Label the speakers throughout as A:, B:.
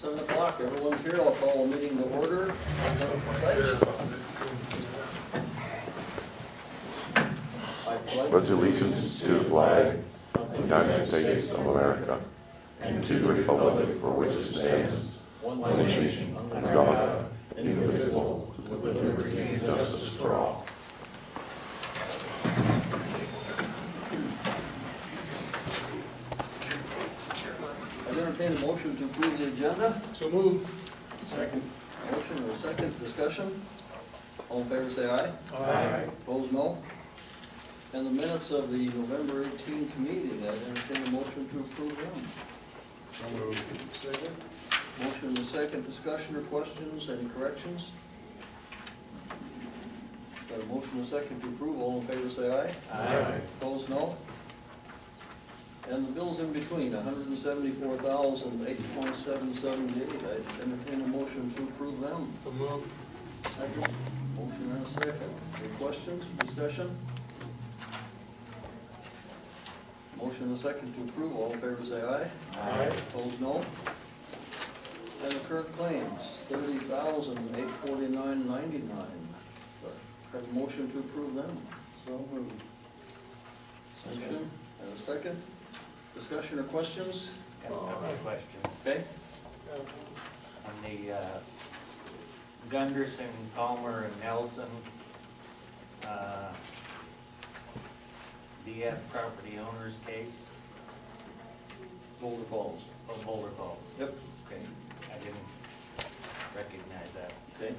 A: Seven o'clock, everyone's here, I'll call a meeting to order. I pledge
B: pledge allegiance to the flag of the United States of America and to the republic for which it stands, one nation, under God, indivisible, with liberty and justice for all.
A: I entertain a motion to approve the agenda.
C: So moved.
A: Second. Motion or second, discussion? All in favor, say aye.
C: Aye.
A: Opposed, no. And the minutes of the November eighteenth meeting, I entertain a motion to approve them.
C: So moved. Second?
A: Motion and a second, discussion or questions, any corrections? Got a motion and a second to approve, all in favor say aye.
C: Aye.
A: Opposed, no. And the bills in between, hundred and seventy-four thousand, eight point seven seven eight, I entertain a motion to approve them.
C: So moved.
A: Second. Motion and a second, any questions, discussion? Motion and a second to approve, all in favor say aye.
C: Aye.
A: Opposed, no. And the current claims, thirty thousand, eight forty-nine, ninety-nine. Have a motion to approve them. So moved. Motion, and a second. Discussion or questions?
D: Got a couple of questions.
A: Okay.
D: On the uh, Gunderson, Palmer, and Nelson, uh, DF property owners case,
A: Boulder Falls.
D: of Boulder Falls.
A: Yep.
D: Okay, I didn't recognize that.
A: Okay.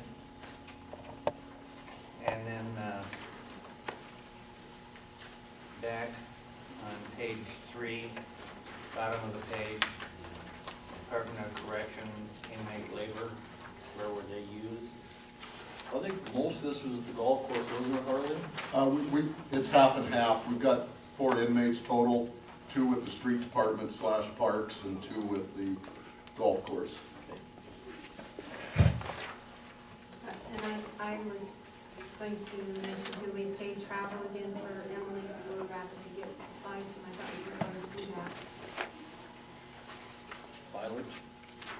D: And then, uh, back on page three, bottom of the page, Department of Corrections inmate labor, where were they used?
A: I think most of this was at the golf course, wasn't it, Harley?
E: Uh, we, we, it's half and half. We've got four inmates total, two with the street department slash parks and two with the golf course.
F: And I, I was going to mention too, we paid travel again for Emily to go to Rapid to get supplies, and I thought we were going to do that.
A: Mileage.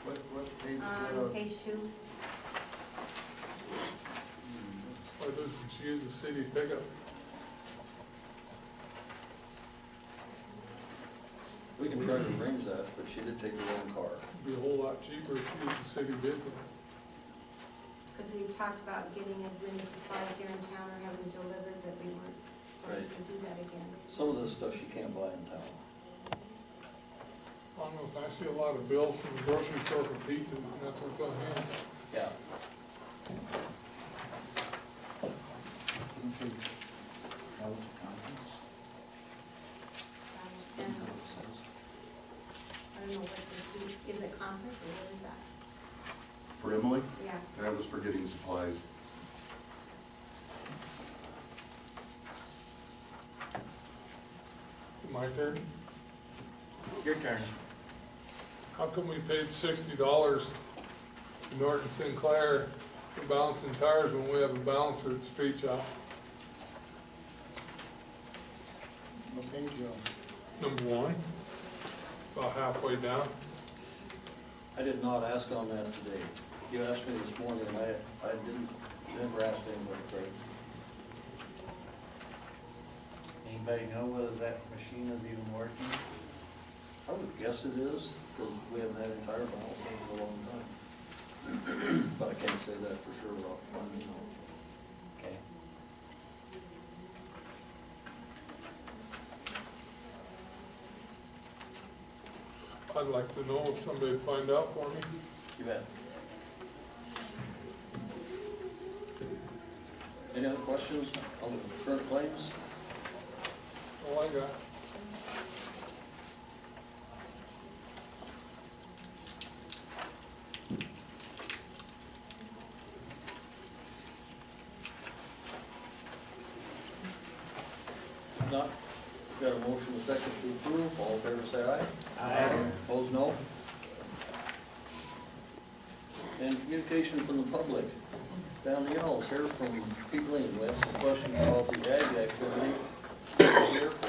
C: What, what page
F: Um, page two,
C: Why doesn't she use the city pickup?
A: We can try to arrange that, but she did take her own car.
C: Be a whole lot cheaper if she used the city vehicle.
F: because we talked about getting as many supplies here in town or having delivered that we weren't going to do that again.
A: Some of this stuff she can't buy in town.
C: I don't know, I see a lot of bills from the grocery store for pizzas, and that's what's on hand.
A: Yeah.
F: Um, And I don't know what this is, is it conference or what is that?
E: For Emily,
F: Yeah,
E: that was for getting supplies.
C: My turn.
D: Your turn.
C: How come we paid sixty dollars to Norton Sinclair for balancing tires when we have a balancer at Street Shop? Number one, about halfway down.
A: I did not ask on that today. You asked me this morning, and I, I didn't, never asked anybody, Craig.
D: Anybody know whether that machine is even working?
A: I would guess it is, because we haven't had entire balance in a long time. But I can't say that for sure without finding out.
D: Okay.
C: I'd like to know if somebody would find out for me.
A: You bet. Any other questions on the current claims?
C: All I got.
A: If Not, got a motion and a second to approve, all in favor say aye. Opposed, no. And communication from the public. Down the halls, here from Pete Lane, we have some questions about the ag activity. Here,